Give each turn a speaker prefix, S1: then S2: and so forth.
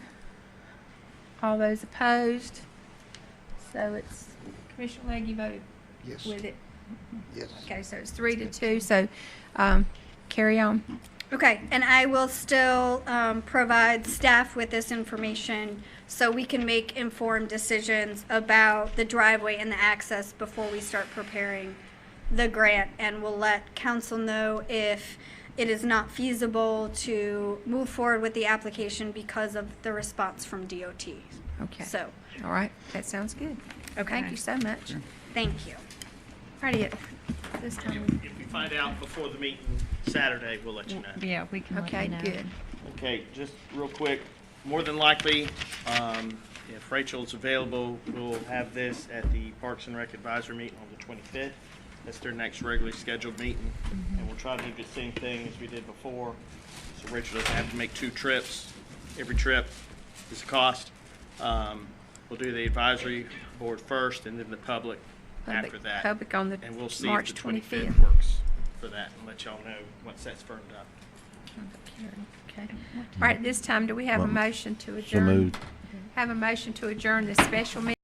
S1: All those opposed? So it's, Commissioner Leggy voted
S2: Yes,
S1: with it.
S2: yes.
S1: Okay, so it's three to two, so, um, carry on.
S3: Okay, and I will still um, provide staff with this information so we can make informed decisions about the driveway and the access before we start preparing the grant. And we'll let council know if it is not feasible to move forward with the application because of the response from DOT.
S1: Okay,
S3: So,
S1: all right, that sounds good. Thank you so much.
S3: thank you.
S1: Alrighty, at this time,
S4: If we find out before the meeting Saturday, we'll let you know.
S5: Yeah, we can let
S1: okay,
S5: you know.
S1: good.
S4: Okay, just real quick, more than likely, um, if Rachel's available, we'll have this at the Parks and Rec Advisory Meeting on the twenty-fifth. That's their next regularly scheduled meeting, and we'll try to do the same thing as we did before. So Rachel doesn't have to make two trips. Every trip is a cost. Um, we'll do the advisory board first and then the public
S1: Public-
S4: after that.
S1: Public on the
S4: And we'll see if
S1: March
S4: the
S1: 25th.
S4: twenty-fifth works for that and let y'all know once that's firmed up.
S1: Okay. All right, this time, do we have a motion to
S6: So
S1: adjourn?
S6: moved.
S1: Have a motion to adjourn this special meeting?